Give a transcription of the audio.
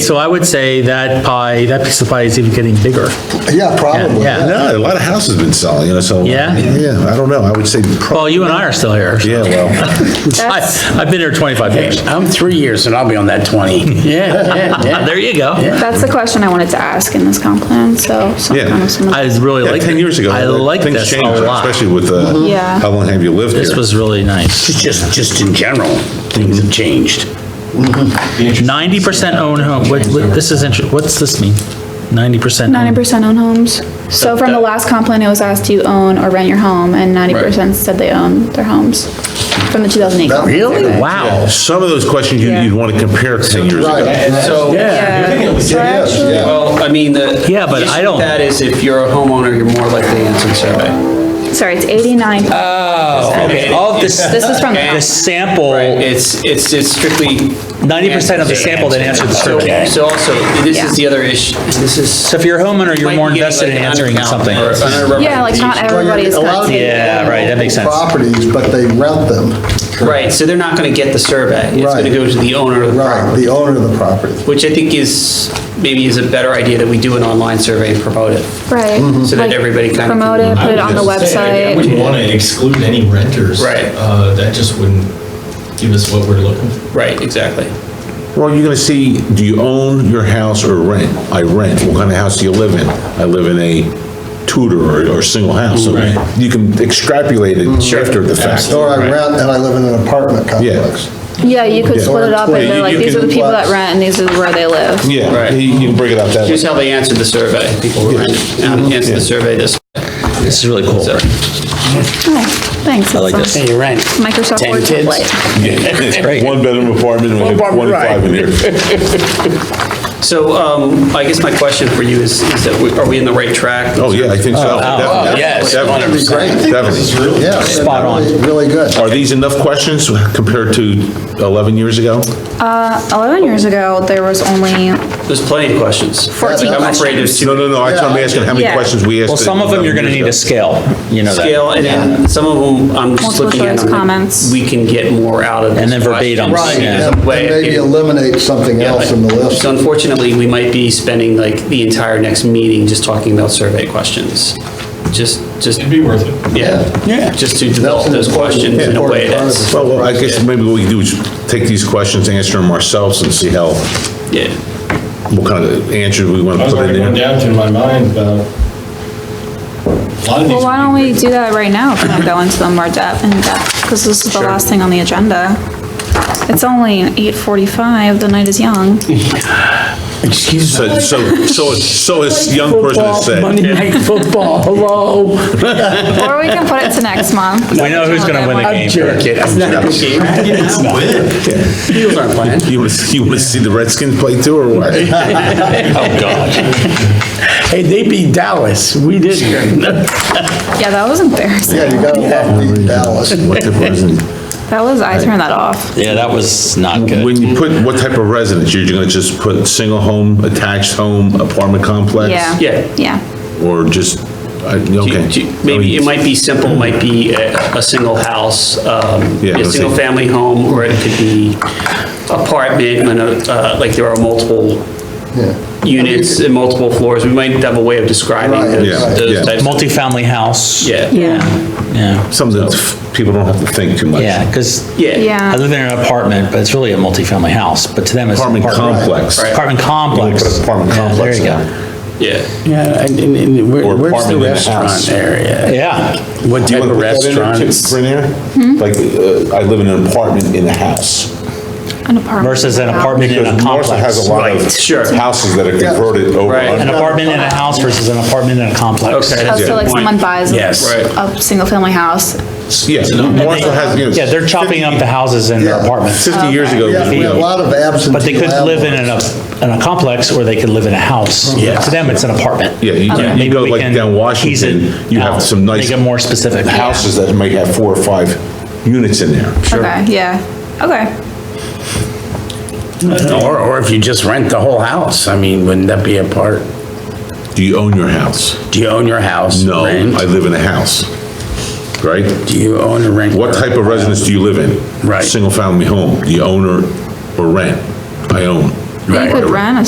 So I would say that pie, that piece of pie is even getting bigger. Yeah, probably. Yeah. No, a lot of houses been selling, you know, so. Yeah? Yeah, I don't know, I would say, pro- Well, you and I are still here. yeah, well. I, That's, I've been here 25 years. I'm three years and I'll be on that 20. Yeah, yeah, yeah. There you go. that's the question I wanted to ask in this comp plan, so. some Yeah. kind of some- I really Yeah, like. 10 years ago. I uh, like things this a changed, lot. Especially with, uh, Yeah. how long have you lived This here? was really nice. Just, just in general, things have changed. 90% own home, what, what- this is interesting, what's this mean? 90%? own- Ninety percent own homes. So from the last comp plan, it was asked, do you own or rent your home? And ninety percent said they own their homes from the two thousand eight. Really? Wow. Some of those questions you- Yeah. you'd want to compare 10 years ago. Right. And so, Yeah. So actually- well, I mean, the. Yeah, but the issue I don't- with That is if you're a homeowner, you're more likely to answer the survey. Sorry, it's eighty-nine. Oh, okay, all of this. This is from the Uh, The comp. sample, It's, it's, it's strictly. 90% of the sample that answered the So- survey. So also, this is Yeah. the other issue, this is. So if you're a homeowner, you're Might be more getting invested in like an answering undercount something. or an Yeah, like not underrepresentation. everybody's A lot got of to. people Yeah, own right, that makes sense. Properties, but they rent them. Right, so they're not gonna get the survey. It's Right. gonna go to the owner of the Right, property, the owner of the property. which I think is, maybe is a better idea that we do an online survey and promote it. Right. Mm-hmm. So that Like, everybody kinda can- Promote it, I put it would on the just say, I website. wouldn't want to exclude any renters. Right. Uh, That just wouldn't give us what we're looking for. Right, exactly. Well, you're going to see, do you own your house or rent? I rent. What kind of house do you live in? I live in a Tudor or, or single house. So You can extrapolate it after the fact. Or I rent and I live in an apartment complex. Yeah, you could Yeah. split it up and Yeah, they're you- like, you these are can the people watch- that rent and these is where they live. Yeah, Right. you you can break it out that way. Here's how they answered the survey. People were, um, answered the survey this. This is really cool. So- Oh, Thanks. I like this. Hey, you're right. Microsoft Ten Word kids? template. great. One bedroom apartment, we have One bedroom, right. 25 in here. So um, I guess my question for you is, is that we- are we in the right track? Oh, yeah, I think so. Definitely. yes, Definitely. 100%. Definitely. Yeah. Spot on. Really good. Are these enough questions compared to 11 years ago? Eleven years ago, there was only There's plenty of questions. 14 I'm afraid of No, no, no, I'm asking how many Yeah. questions we asked. Well, some of them you're gonna 11 need years a ago. scale, you know that. scale, and then some of them, I'm just Multiple looking at. choice them, like, comments. We can get more out of this. And then verbatims, question. yeah. There's a And and way of maybe getting- eliminate something Yeah, else in the like- list. So unfortunately, we might be spending like the entire next meeting just talking about survey questions. Just, just, It'd be worth it. yeah. Yeah. Just to develop an those important- questions in a way important part of that's, it. Well, well, I guess maybe what we can do is take these questions, answer them ourselves and see how, yeah. what kind of answers we want to I was put already in going there. down through my mind about a lot Well, why of these. would be don't great. we do that right now, if we don't go into them more depth, in depth, because this is the last thing on the agenda. It's only eight forty-five, the night is young. Excuse me. So, so, so this young person has said, Monday Night Football, hello? Or we can put it to next month. We know who's gonna win the I'm game. joking. I'm joking. It's not it. Eagles aren't playing. you want to, you want to see the Redskins play too or what? Hey, they beat Dallas, we didn't. Yeah, that was embarrassing. Yeah, you gotta love the Dallas. What type of resident? That was, I turned that off. Yeah, that was not good. When you put, what type of residence? You're going to just put single home, attached home, apartment complex? Yeah. Yeah. Yeah. Or just, I- Do you- okay. do you- Maybe it might be simple, might be a, a single house, um, Yeah, a let's single see. family home, or it could be apartment, and, uh, like there are multiple units and multiple floors. We might have a way of describing Right, yeah, those, yeah. those types. of- Multifamily house. Yeah, Yeah. Yeah, Something that people don't have to think too much. yeah, because yeah. I Yeah. live in an apartment, but it's really a multifamily house, but to them it's. an Apartment complex. Apartment complex. You put an apartment Yeah, complex in There you there. Yeah, Yeah, and, and- and where- Or where's the apartment in a house. restaurant area? go. Yeah, What Do you type of want to put that in there, too, restaurants? Brynn, Hmm? here? Like, uh, I live in an apartment in a house. An apartment. versus an apartment in a Because Marshall has complex. a lot of sure. houses that are converted over. Right. An under- apartment in a house versus an apartment in a complex. Okay. Oh, that's a so good like point. someone buys Yes. Right. a single-family house. Yeah, Marshall has, you know. Yeah, they're chopping up the houses in their Yeah. apartments, Fifty years ago. Yeah, we have a lot of absentee but they could live in an, ap- in a complex or they could live in a house. Yeah. To them, it's an apartment. Yeah, you- Okay. you Maybe go we like can down tease it Washington, you have out, some nice Make it more specific. Houses that might have four or five units in there. Okay, yeah. Okay. Or, or if you just rent the whole house, I mean, wouldn't that be a part? Do you own your house? Do you own your house? No, Rent? I live in a house, right? Do you own or rent? What type of residence do you live in? Right. Single-family home, do you own or, or rent? I own. You could rent a